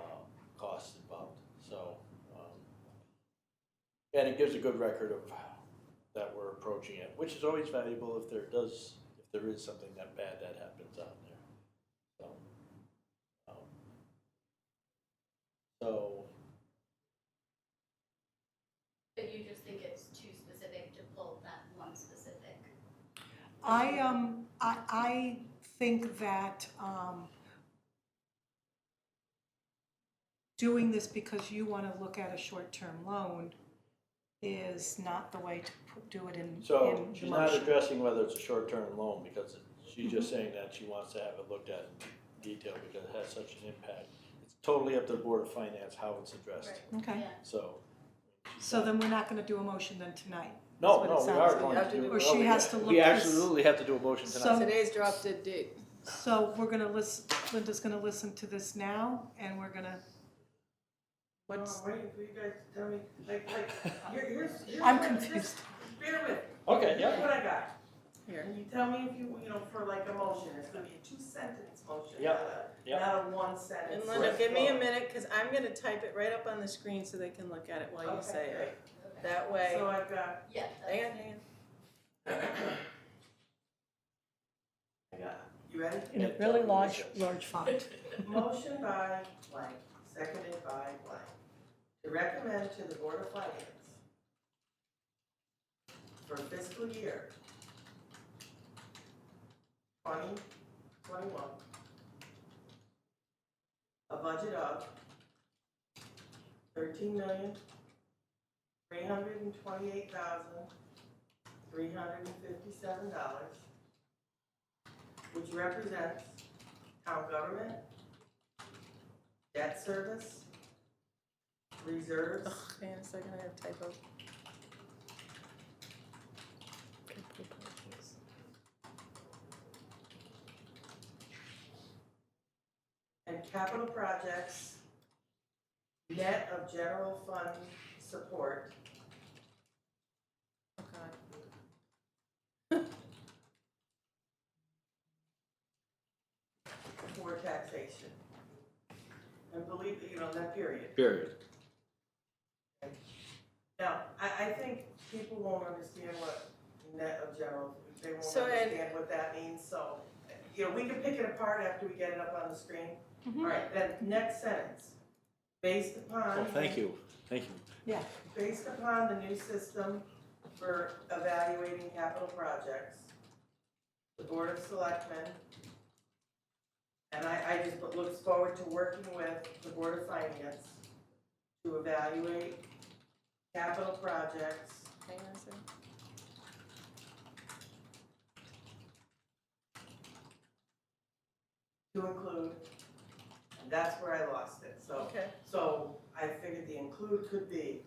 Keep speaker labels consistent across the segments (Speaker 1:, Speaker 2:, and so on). Speaker 1: um, And it gives a good record of that we're approaching it, which is always valuable if there does, if there is something that bad that happens out there. So, um, so
Speaker 2: But you just think it's too specific to pull that one specific.
Speaker 3: I, um, I, I think that, um, doing this because you wanna look at a short-term loan is not the way to pu- do it in,
Speaker 1: So
Speaker 3: in the
Speaker 1: she's not
Speaker 3: motion.
Speaker 1: addressing whether it's a short-term loan because it- she's just saying that she wants to have it looked at in detail because it has such an impact. It's totally up to the Board of Finance how it's addressed,
Speaker 3: Okay,
Speaker 2: Yeah.
Speaker 1: so. she's
Speaker 3: so
Speaker 1: not-
Speaker 3: then we're not gonna do a motion then tonight.
Speaker 1: No,
Speaker 3: what it
Speaker 1: no, we
Speaker 3: sounds
Speaker 1: are going
Speaker 4: like.
Speaker 1: to do.
Speaker 4: Or
Speaker 1: no,
Speaker 3: she
Speaker 1: we-
Speaker 3: has to look
Speaker 1: We
Speaker 3: this-
Speaker 1: absolutely have to do a motion
Speaker 3: So-
Speaker 1: tonight.
Speaker 4: Today's drop dead date.
Speaker 3: So we're gonna listen, Linda's gonna listen to this now and we're gonna,
Speaker 5: No,
Speaker 3: what's,
Speaker 5: I'm waiting for Oh, you guys to tell me, like, like, here- here's,
Speaker 1: Oh.
Speaker 5: here's.
Speaker 3: I'm
Speaker 5: what-
Speaker 3: confused.
Speaker 5: just Bear with,
Speaker 1: Okay,
Speaker 5: here's
Speaker 1: yeah,
Speaker 5: what I got.
Speaker 4: Here.
Speaker 5: And you tell me if you, you know, for like a motion, it's gonna be a two sentence motion,
Speaker 1: Yep,
Speaker 5: not a,
Speaker 1: yep.
Speaker 5: not a one sentence.
Speaker 4: And Linda,
Speaker 1: Right.
Speaker 4: give me a minute, because I'm gonna type it right up on the screen so they can look at it while you
Speaker 5: Okay,
Speaker 4: say it.
Speaker 2: Okay.
Speaker 4: That
Speaker 5: great.
Speaker 4: way,
Speaker 5: So I've got,
Speaker 2: Yeah.
Speaker 4: hang on, hang on.
Speaker 5: I got, you ready?
Speaker 3: in a really large, large font.
Speaker 5: Motion by blank, seconded by blank, to recommend to the Board of Finance for fiscal year twenty twenty-one, a budget of thirteen million, three hundred and twenty-eight thousand, three hundred and fifty-seven dollars, which represents town government, debt service, reserves,
Speaker 4: Ugh, Hang on a second, I have typos.
Speaker 5: and capital projects, net of general fund support,
Speaker 4: Oh, God.
Speaker 5: for taxation. And believe, that, you know, that period.
Speaker 1: Period.
Speaker 5: Now, I, I think people won't understand what net of general, they won't
Speaker 4: So, and-
Speaker 5: understand what that means, so, you know, we can pick it apart after we get it up on the screen. All right, then, next sentence, based upon.
Speaker 1: Well, thank you, thank you.
Speaker 5: Based upon the new system for evaluating capital projects, the Board of Selectmen, and I, I just looks forward to working with the Board of Finance to evaluate capital projects
Speaker 4: Hang on a second.
Speaker 5: to include, and that's where I lost it, so,
Speaker 4: Okay,
Speaker 5: so I figured the include could be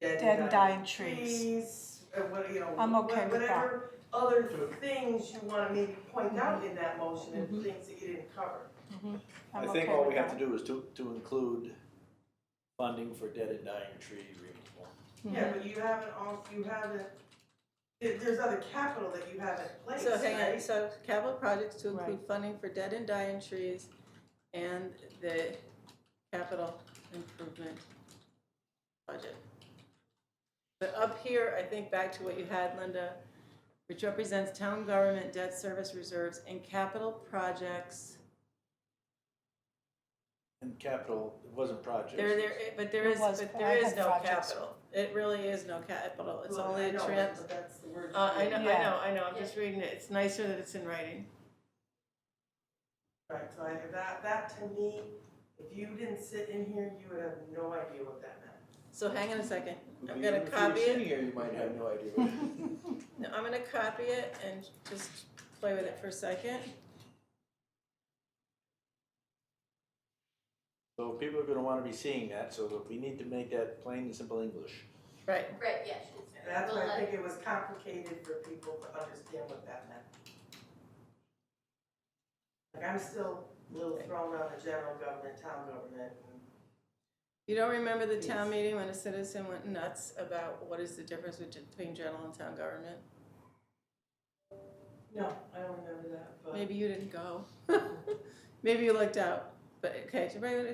Speaker 5: dead
Speaker 3: Dead
Speaker 5: and
Speaker 3: and
Speaker 5: dying
Speaker 3: dying trees.
Speaker 5: trees, uh, what, you know,
Speaker 3: I'm
Speaker 5: wha-
Speaker 3: okay with that.
Speaker 5: whatever other things you wanna maybe point
Speaker 3: Mm-hmm.
Speaker 5: out in that motion and things that you didn't cover.
Speaker 3: I'm
Speaker 1: I think
Speaker 3: okay
Speaker 1: all
Speaker 3: with
Speaker 1: we have to
Speaker 3: that.
Speaker 1: do is to, to include funding for dead and dying tree removal.
Speaker 3: Mm-hmm.
Speaker 5: Yeah, but you haven't all, you haven't, there, there's other capital that you haven't placed,
Speaker 4: so hang on,
Speaker 5: right?
Speaker 4: so capital projects to include
Speaker 3: Right.
Speaker 4: funding for dead and dying trees and the capital improvement budget. But up here, I think back to what you had, Linda, which represents town government debt service reserves and capital projects.
Speaker 1: And capital, it wasn't projects.
Speaker 4: There, there, eh, but there
Speaker 3: It
Speaker 4: is,
Speaker 3: was-
Speaker 4: but
Speaker 3: I
Speaker 4: there is
Speaker 3: had
Speaker 4: no
Speaker 3: projects.
Speaker 4: capital. It really is no capital. It's
Speaker 5: Well,
Speaker 4: only
Speaker 5: I
Speaker 4: a
Speaker 5: know,
Speaker 4: trans,
Speaker 5: But that's the word.
Speaker 4: uh, I know, I
Speaker 3: Yeah.
Speaker 4: know, I know. I'm just reading it. It's nicer that it's in writing.
Speaker 5: Right, so I, that, that to me, if you didn't sit in here, you would have no idea what that meant.
Speaker 4: So hang on a second. I'm
Speaker 1: Even
Speaker 4: gonna
Speaker 1: if you were
Speaker 4: copy it.
Speaker 1: sitting here, you might have no idea.
Speaker 4: No, I'm gonna copy it and just play with it for a second.
Speaker 1: So people are gonna wanna be seeing that, so that we need to make that plain and simple English.
Speaker 4: Right,
Speaker 2: Right, yeah, she's.
Speaker 5: That's why
Speaker 2: we'll
Speaker 5: I
Speaker 2: let-
Speaker 5: think it was complicated for people to understand what that meant. Like, I'm still a little thrown on the general government, town government, and
Speaker 4: you don't remember the town
Speaker 5: Yes.
Speaker 4: meeting when a citizen went nuts about what is the difference between between general and town government?
Speaker 5: No, I don't remember that, but.
Speaker 4: Maybe you didn't go. Maybe you looked out, but okay, so right,